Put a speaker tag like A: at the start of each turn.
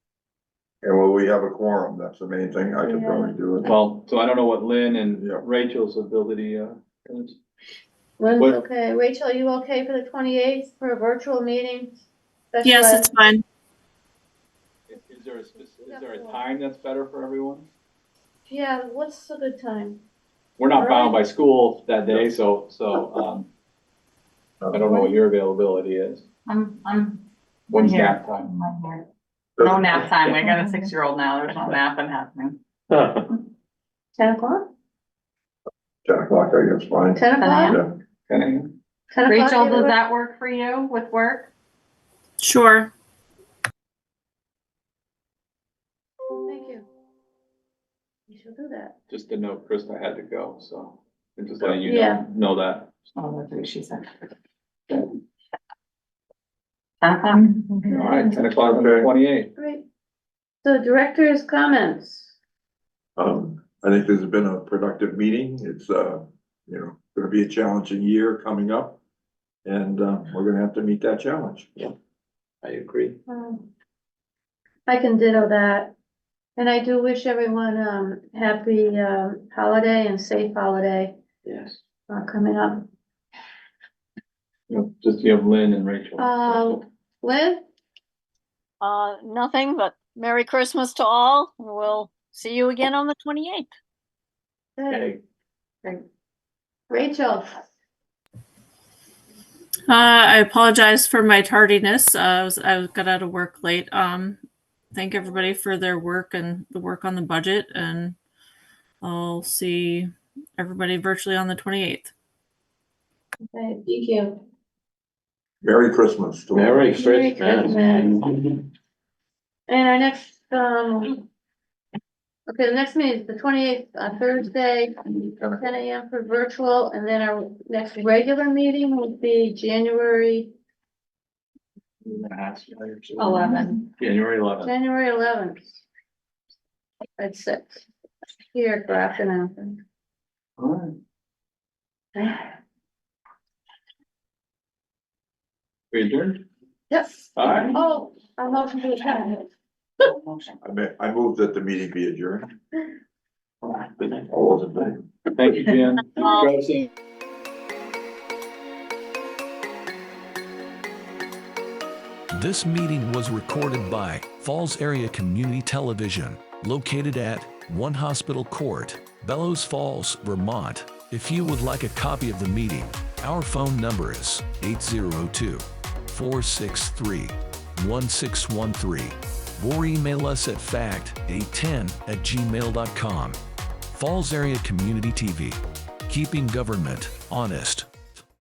A: And will we have a quorum? That's the main thing. I could probably do it.
B: Well, so I don't know what Lynn and
A: Yeah.
B: Rachel's ability, uh, is.
C: Lynn's
B: What-
C: okay. Rachel, are you okay for the twenty-eighth for a virtual meeting? Special
D: Yes,
C: ed-
D: it's fine.
B: is there a spec- is there a time that's better for everyone?
C: Yeah, what's a good time?
B: We're not bound by school that day, so, so, um, I don't know what your availability is.
E: I'm, I'm, I'm
B: When's
E: here.
B: nap time?
E: I'm here. No nap time. I got a six-year-old now. There's no napping happening.
C: Ten o'clock?
A: Ten o'clock, I guess, fine.
C: Ten o'clock?
A: Yeah,
B: Ten a.m.?
C: Ten o'clock
E: Rachel,
C: either
E: does
C: way?
E: that work for you with work?
D: Sure.
C: Thank you. You should do that.
B: Just to note, Krista had to go, so I'm just letting you
C: Yeah.
B: know, know that.
E: Oh, that's what she said. Ten o'clock?
B: All right, ten o'clock on the
A: Okay.
B: twenty-eighth.
C: Great. So director's comments.
A: Um, I think this has been a productive meeting. It's, uh, you know, gonna be a challenging year coming up. And, uh, we're gonna have to meet that challenge.
B: I agree.
C: Um, I can ditto that. And I do wish everyone, um, happy, um, holiday and safe holiday,
B: Yes.
C: uh, coming up.
B: You know, Just you have Lynn and Rachel.
C: Uh, Lynn?
F: Uh, nothing but Merry Christmas to all. and We'll see you again on the twenty-eighth.
B: Okay.
C: Rachel?
D: Uh, I apologize for my tardiness. Uh, I was, I got out of work late. Um, thank everybody for their work and the work on the budget and I'll see everybody virtually on the 28th.
C: Okay, thank you.
A: Merry Christmas to all.
G: Merry
C: Merry Christmas.
G: Christmas.
C: And our next, um, okay, the next meeting is the twenty-eighth, on Thursday, ten AM for virtual, and then our next regular meeting will be January,
E: Eleven.
B: January eleventh.
C: January eleventh. At six, here, Grafton, Athens.
B: All right. We adjourned?
C: Yes.
B: All right.
C: Oh, I'm not from the town.
E: Motion.
A: I ma- I move that the meeting be adjourned. I wasn't there.
B: Thank you, Jen.
F: Um,
B: Drive safe.
H: This meeting was recorded by Falls Area Community Television, located at One Hospital Court, Bellows Falls, Vermont. If you would like a copy of the meeting, our phone number is 802 463 1613 or email us at fact810 at gmail.com. Falls Area Community TV, keeping government honest.